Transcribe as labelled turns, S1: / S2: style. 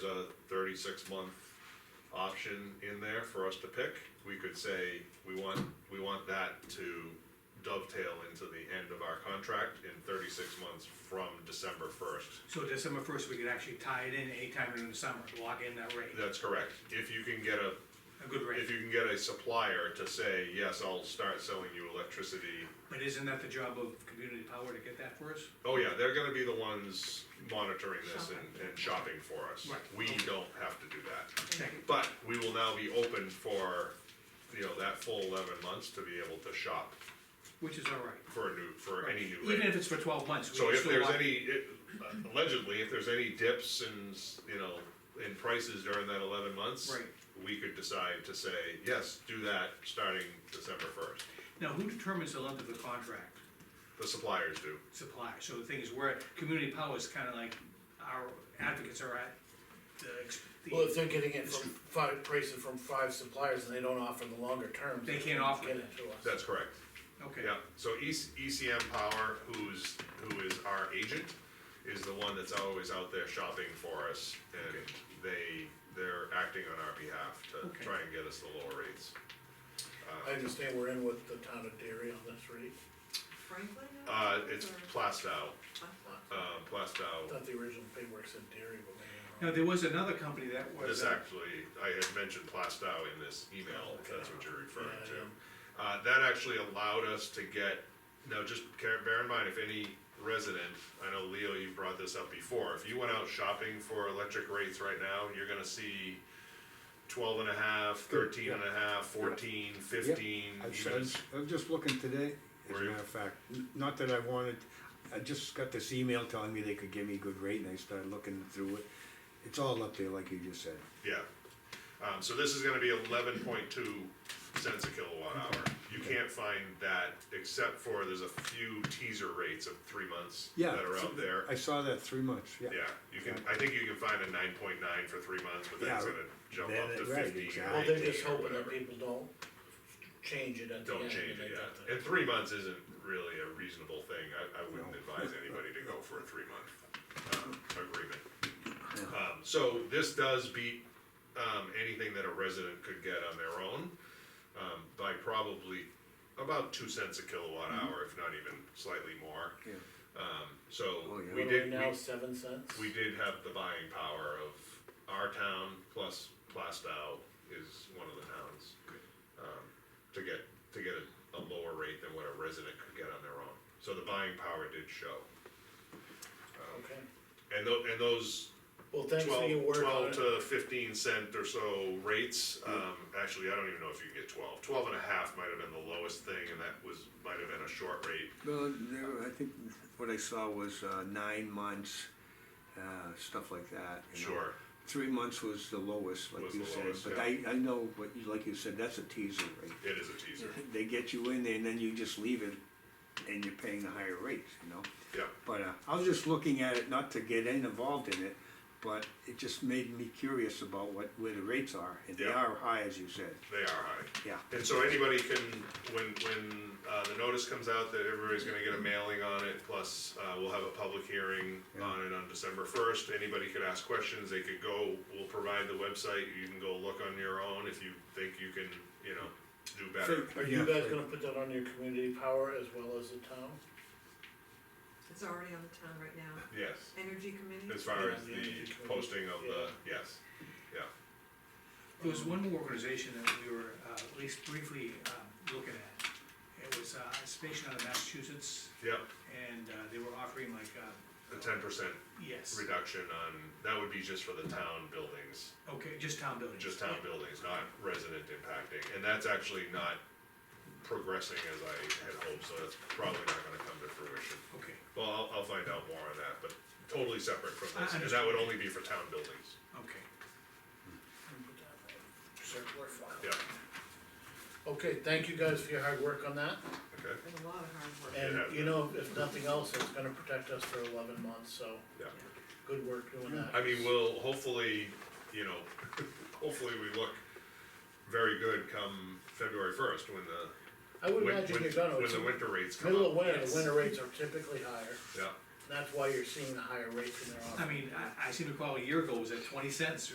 S1: a thirty-six month option in there for us to pick, we could say, we want, we want that to dovetail into the end of our contract in thirty-six months from December first.
S2: So December first, we could actually tie it in anytime in the summer, lock in that rate,
S1: That's correct, if you can get a,
S2: a good
S1: if
S2: rate.
S1: you can get a supplier to say, yes, I'll start selling you electricity.
S2: But isn't that the job of community power to get that for us?
S1: Oh yeah, they're gonna be the ones monitoring this and, and shopping for us.
S2: Right.
S1: We don't have to do that.
S2: Second,
S1: But we will now be open for, you know, that full eleven months to be able to shop
S2: which is all right.
S1: for a new, for any new
S2: Even if
S1: rate.
S2: it's for twelve months,
S1: So
S2: we can
S1: if
S2: still
S1: there's
S2: lock.
S1: any, it- allegedly, if there's any dips in, you know, in prices during that eleven months.
S2: Right.
S1: We could decide to say, yes, do that starting December first,
S2: Now, who determines the length of the contract
S1: the suppliers do.
S2: supply? So the thing is, where community power is kinda like our advocates are at the, ex- the-
S3: Well, if they're getting it from five, prices from five suppliers and they don't offer the longer terms.
S2: They can't offer
S3: get
S2: that.
S3: to us.
S1: That's correct.
S2: okay.
S1: Yeah, so E EC, ECM Power, who's, who is our agent, is the one that's always out there shopping for us, and they, they're acting on our behalf
S2: Okay.
S1: to try and get us the lower rates.
S3: I understand we're in with the town of Derry on this rate,
S4: Franklin?
S1: Uh, it's
S4: Or-
S1: Plastow, uh,
S3: I
S1: Plastow,
S3: thought the original paperwork said Derry, but maybe
S2: Now,
S3: I'm wrong.
S2: there was another company that was,
S1: this
S2: uh,
S1: actually, I had mentioned Plastow in this email, if that's what you're referring
S3: Yeah,
S1: to.
S3: yeah.
S1: Uh, that actually allowed us to get, now just care, bear in mind, if any resident, I know Leo, you brought this up before, if you went out shopping for electric rates right now, you're gonna see twelve and a half, thirteen and a half, fourteen, fifteen,
S5: I've
S1: even as-
S5: said- I'm just looking today, as
S1: Were
S5: a
S1: you?
S5: matter of fact, N- not that I wanted, I just got this email telling me they could give me a good rate, and I started looking through it. It's all up there, like you just said.
S1: yeah. Um, so this is gonna be eleven point two cents a kilowatt hour. You can't find that except for there's a few teaser rates of three months
S5: Yeah.
S1: that are out there.
S5: I saw that three months, yeah.
S1: Yeah, you can, I think you can find a nine point nine for three months, but then it's
S5: Yeah,
S1: gonna jump
S5: then
S1: up to
S5: it- right,
S1: fifteen
S5: exactly.
S1: or
S3: Well, they're just
S1: eighteen or
S3: hoping that
S1: whatever.
S3: people don't change it at the end.
S1: Don't change
S3: and
S1: it,
S3: they got
S1: yeah.
S3: the-
S1: And three months isn't really a reasonable thing. I, I wouldn't
S5: No.
S1: advise anybody to go for a three month, um, agreement. Um, so this does beat, um, anything that a resident could get on their own, um, by probably about two cents a kilowatt hour, if not even slightly more.
S5: Mm-hmm. Yeah.
S1: Um, so
S5: Oh, yeah.
S1: we
S3: What are
S1: did,
S3: we
S1: we
S3: now, seven cents?
S1: we did have the buying power of our town plus Plastow is one of the towns. Um, to get, to get a, a lower rate than what a resident could get on their own, so the buying power did show.
S3: Okay,
S1: And tho- and those
S3: well, thanks for your
S1: twelve,
S3: work on
S1: twelve
S3: it.
S1: to fifteen cent or so rates, um, actually, I don't even know if you can get twelve. Twelve and a half might have been the lowest thing, and that was, might have been a short rate,
S5: Well, there, I think what I saw was uh, nine months, uh, stuff like that. you know.
S1: sure,
S5: Three months was the lowest, like
S1: Was
S5: you
S1: the
S5: said,
S1: lowest,
S5: but I,
S1: yeah.
S5: I know, what you like you said, that's a teaser rate.
S1: it is a teaser,
S5: They get you in there and then you just leave it and you're paying the higher rates, you know?
S1: yeah.
S5: But uh, I was just looking at it, not to get in- involved in it, but it just made me curious about what, where the rates are, and they
S1: Yeah.
S5: are high, as you said,
S1: They are high.
S5: yeah.
S1: And so anybody can, when, when, uh, the notice comes out that everybody's gonna get a mailing on it, plus, uh, we'll have a public hearing on it on December first. Anybody could ask questions, they could go, we'll provide the website, you can go look on your own if you think you can, you know, do better.
S3: Are you guys gonna put that on your community power as well as the town?
S4: It's already on the town right now.
S1: Yes,
S4: Energy committee?
S1: as far as the posting of the, yes, yeah.
S2: there was one more organization that we were, uh, at least briefly, um, looking at. It was, uh, a station out of Massachusetts,
S1: Yep,
S2: and, uh, they were offering like, uh,
S1: a ten percent
S2: yes.
S1: reduction on, that would be just for the town buildings.
S2: Okay, just town buildings.
S1: just town buildings, not resident impacting, and that's actually not progressing as I had hoped, so that's probably not gonna come to fruition.
S2: Okay,
S1: Well, I'll, I'll find out more on that, but totally separate from this,
S2: I- I
S1: and that would only be for town buildings,
S2: okay.
S3: Circular file.
S1: yeah,
S3: Okay, thank you guys for your hard work on that.
S1: okay,
S4: Been a lot of hard work.
S3: And
S1: Yeah.
S3: you know, if nothing else, it's gonna protect us for eleven months, so
S1: yeah.
S3: good work doing that.
S1: I mean, we'll hopefully, you know, hopefully we look very good come February first, when the,
S3: I would
S1: when,
S3: imagine
S1: when,
S3: you're gonna,
S1: when
S3: it's
S1: the winter rates come
S3: middle of
S1: up,
S3: winter, the
S2: yes.
S3: winter rates are typically higher,
S1: yeah,
S3: That's why you're seeing the higher rates in their offer.
S2: I mean, I, I seem to recall a year ago, it was at twenty cents